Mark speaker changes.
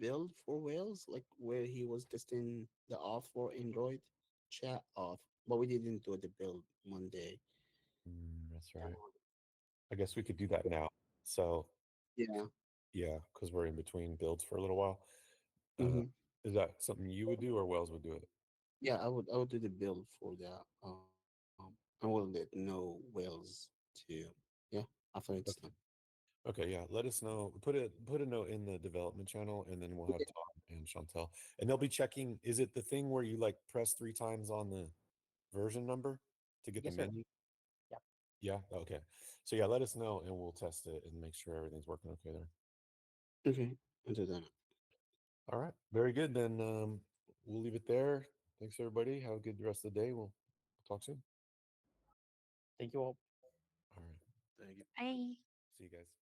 Speaker 1: build for Wales, like where he was testing the off for Android chat off, but we didn't do the build one day.
Speaker 2: Mm, that's right. I guess we could do that now. So
Speaker 1: Yeah.
Speaker 2: yeah, because we're in between builds for a little while. Uh,
Speaker 3: Mm-hmm.
Speaker 1: Mhm.
Speaker 2: Is that something you would do or Wells would do it?
Speaker 1: Yeah, I would I would do the build for that. Um, I will let know Wales too. Yeah, after it's
Speaker 2: Okay.
Speaker 1: done.
Speaker 2: Okay, yeah. Let us know. Put a put a note in the development channel, and then we'll have
Speaker 1: Yeah.
Speaker 2: Tom and Chantel, and they'll be checking. Is it the thing where you like press three times on the version number to get
Speaker 3: Yes,
Speaker 2: the
Speaker 3: sir.
Speaker 2: menu?
Speaker 3: Yep.
Speaker 2: Yeah. Okay. So yeah, let us know, and we'll test it and make sure everything's working okay there.
Speaker 1: Okay, I'll do that.
Speaker 2: All right. Very good. Then um, we'll leave it there. Thanks everybody. Have a good rest of the day. We'll talk soon.
Speaker 3: Thank you all.
Speaker 2: All right.
Speaker 1: Thank you.
Speaker 4: Bye.
Speaker 2: See you guys.